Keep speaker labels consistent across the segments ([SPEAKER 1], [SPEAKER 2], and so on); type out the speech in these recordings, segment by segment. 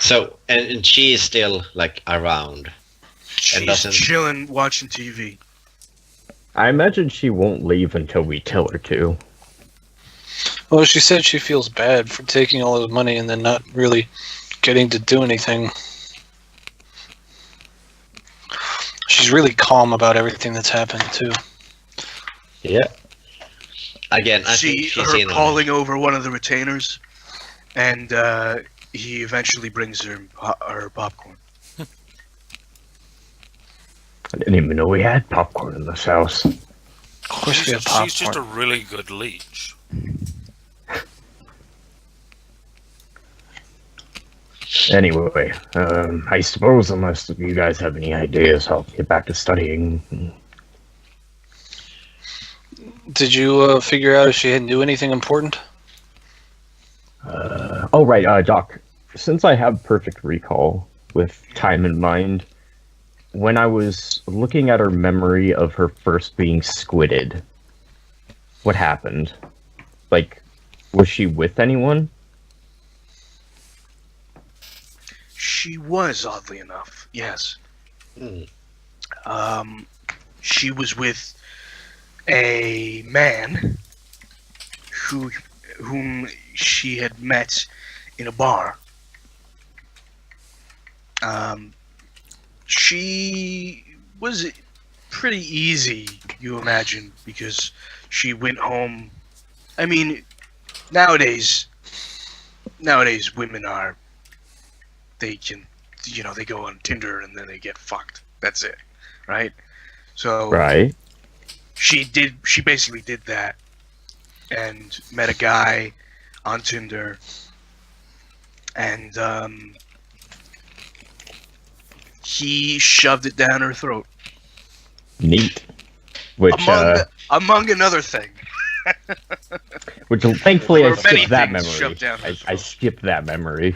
[SPEAKER 1] So and, and she is still like around.
[SPEAKER 2] She's
[SPEAKER 1] doesn't-
[SPEAKER 2] chilling, watching TV.
[SPEAKER 3] I imagine she won't leave until we tell her to.
[SPEAKER 4] Well, she said she feels bad for taking all his money and then not really getting to do anything. She's really calm about everything that's happened, too.
[SPEAKER 1] Yeah. Again, I
[SPEAKER 2] See
[SPEAKER 1] think she's
[SPEAKER 2] her
[SPEAKER 1] in on it.
[SPEAKER 2] calling over one of the retainers, and uh, he eventually brings her po- her popcorn.
[SPEAKER 3] I didn't even know we had popcorn in this house.
[SPEAKER 4] Of course,
[SPEAKER 5] she's,
[SPEAKER 4] we have
[SPEAKER 5] just- she's just a
[SPEAKER 4] popcorn.
[SPEAKER 5] really good leech.
[SPEAKER 3] Anyway, um, I suppose unless you guys have any ideas, I'll get back to studying.
[SPEAKER 4] Did you uh, figure out if she had knew anything important?
[SPEAKER 3] Uh, oh, right, uh, Doc. Since I have perfect recall with time in mind, when I was looking at her memory of her first being squidded, what happened? Like, was she with anyone?
[SPEAKER 2] She was, oddly enough, yes.
[SPEAKER 1] Mm.
[SPEAKER 2] Um, she was with a man who whom she had met in a bar. Um, she was pretty easy, you imagine, because she went home. I mean, nowadays, nowadays women are they can you know they go on tinder and then they get fucked that's it right so
[SPEAKER 3] Right.
[SPEAKER 2] she did she basically did that and met a guy on tinder and um he shoved it down her throat
[SPEAKER 3] Neat. Which,
[SPEAKER 2] among
[SPEAKER 3] uh,
[SPEAKER 2] among another thing
[SPEAKER 3] which thankfully I
[SPEAKER 2] Or many
[SPEAKER 3] skipped that
[SPEAKER 2] things
[SPEAKER 3] memory.
[SPEAKER 2] shoved down
[SPEAKER 3] I,
[SPEAKER 2] her
[SPEAKER 3] I
[SPEAKER 2] throat.
[SPEAKER 3] skipped that memory.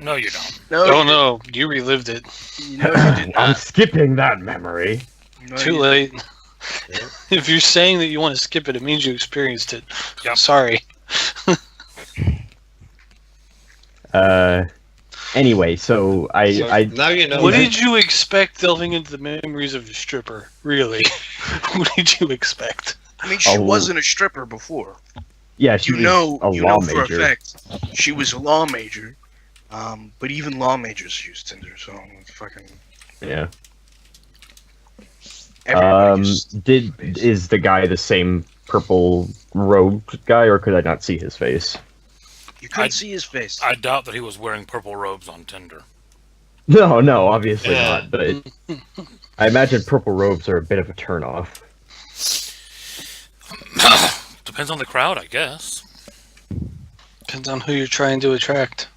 [SPEAKER 5] No, you don't.
[SPEAKER 2] no
[SPEAKER 4] Oh, no. You relived it.
[SPEAKER 2] you- no you did
[SPEAKER 3] I'm
[SPEAKER 2] not
[SPEAKER 3] skipping that memory.
[SPEAKER 2] No,
[SPEAKER 4] Too
[SPEAKER 2] you-
[SPEAKER 4] late.
[SPEAKER 1] Yeah.
[SPEAKER 4] if you're saying that you want to skip it, it means you experienced it.
[SPEAKER 5] Yep.
[SPEAKER 4] Sorry.
[SPEAKER 3] Uh, anyway, so I,
[SPEAKER 1] So
[SPEAKER 3] I
[SPEAKER 1] now you know.
[SPEAKER 4] What
[SPEAKER 1] that-
[SPEAKER 4] did you expect delving into the memories of a stripper? Really? what did you expect?
[SPEAKER 2] i mean she
[SPEAKER 3] Oh.
[SPEAKER 2] wasn't a stripper before
[SPEAKER 3] yeah, she
[SPEAKER 2] you
[SPEAKER 3] was
[SPEAKER 2] know,
[SPEAKER 3] a
[SPEAKER 2] you
[SPEAKER 3] law
[SPEAKER 2] know for
[SPEAKER 3] major.
[SPEAKER 2] a fact she was a law major. Um, but even law majors use Tinder, so it's fucking.
[SPEAKER 3] yeah.
[SPEAKER 2] everybody
[SPEAKER 3] Um,
[SPEAKER 2] uses-
[SPEAKER 3] did is the guy the same purple robed guy, or could I not see his face?
[SPEAKER 2] you couldn't
[SPEAKER 5] I-
[SPEAKER 2] see his face.
[SPEAKER 5] I doubt that he was wearing purple robes on Tinder.
[SPEAKER 3] No, no, obviously
[SPEAKER 1] Yeah.
[SPEAKER 3] not. But I imagine purple robes are a bit of a turnoff.
[SPEAKER 5] Depends on the crowd, I guess.
[SPEAKER 4] Depends on who you're trying to attract.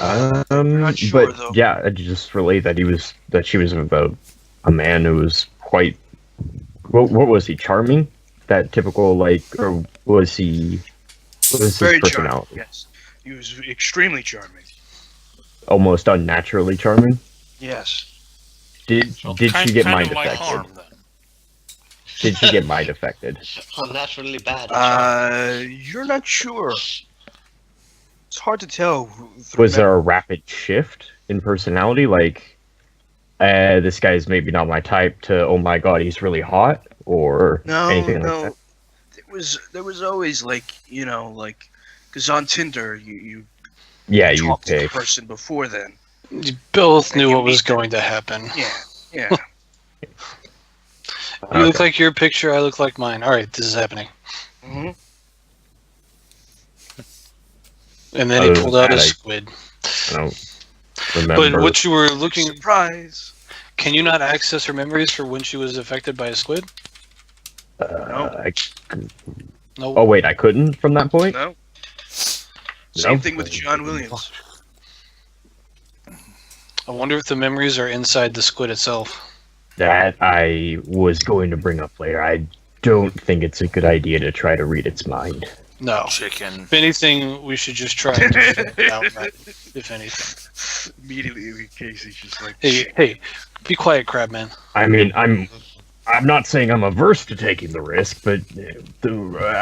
[SPEAKER 3] Um,
[SPEAKER 2] not sure,
[SPEAKER 3] but
[SPEAKER 2] though.
[SPEAKER 3] yeah, I just relate that he was that she was about a man who was quite. What, what was he charming? That typical like, or was he? What was
[SPEAKER 2] Very
[SPEAKER 3] his
[SPEAKER 2] charming.
[SPEAKER 3] personality?
[SPEAKER 2] Yes, he was extremely charming.
[SPEAKER 3] Almost unnaturally charming.
[SPEAKER 2] Yes,
[SPEAKER 3] Did
[SPEAKER 5] Well,
[SPEAKER 3] did
[SPEAKER 5] kind,
[SPEAKER 3] she get
[SPEAKER 5] kind
[SPEAKER 3] mind
[SPEAKER 5] of like
[SPEAKER 3] affected?
[SPEAKER 5] harm then?
[SPEAKER 3] Did she get mind affected?
[SPEAKER 1] Unnaturally bad.
[SPEAKER 2] uh, you're not sure. It's hard to tell. who- through
[SPEAKER 3] Was
[SPEAKER 2] mem-
[SPEAKER 3] there a rapid shift in personality? Like, uh, this guy's maybe not my type. To oh my god, he's really hot, or
[SPEAKER 2] No,
[SPEAKER 3] anything
[SPEAKER 2] no.
[SPEAKER 3] like
[SPEAKER 2] There was there was always like you know like because on Tinder you you
[SPEAKER 3] that. Yeah, you
[SPEAKER 2] talk to the
[SPEAKER 3] pick.
[SPEAKER 2] person before then.
[SPEAKER 4] You both
[SPEAKER 2] And
[SPEAKER 4] knew
[SPEAKER 2] you
[SPEAKER 4] what was
[SPEAKER 2] meet them.
[SPEAKER 4] going to happen.
[SPEAKER 2] Yeah, yeah.
[SPEAKER 4] You look
[SPEAKER 3] Okay.
[SPEAKER 4] like your picture, I look like mine. All right, this is happening.
[SPEAKER 2] hmm
[SPEAKER 4] And then
[SPEAKER 3] Other
[SPEAKER 4] he
[SPEAKER 3] than
[SPEAKER 4] pulled out a
[SPEAKER 3] that, I
[SPEAKER 4] squid.
[SPEAKER 3] I don't remember.
[SPEAKER 4] But what you were looking,
[SPEAKER 2] Surprise.
[SPEAKER 4] can you not access her memories for when she was affected by a squid?
[SPEAKER 3] uh, I-
[SPEAKER 4] No.
[SPEAKER 3] oh wait, I couldn't from that point.
[SPEAKER 2] No. Same
[SPEAKER 3] No?
[SPEAKER 2] thing with John Williams.
[SPEAKER 4] I wonder if the memories are inside the squid itself.
[SPEAKER 3] That I was going to bring up later. I don't think it's a good idea to try to read its mind.
[SPEAKER 4] No.
[SPEAKER 5] Chicken.
[SPEAKER 4] If anything, we should just try and just fill it out, right? If anything.
[SPEAKER 2] Immediately, Casey's just like,
[SPEAKER 4] Hey, hey, be quiet, Crabman.
[SPEAKER 3] I mean, I'm I'm not saying I'm averse to taking the risk, but uh, the,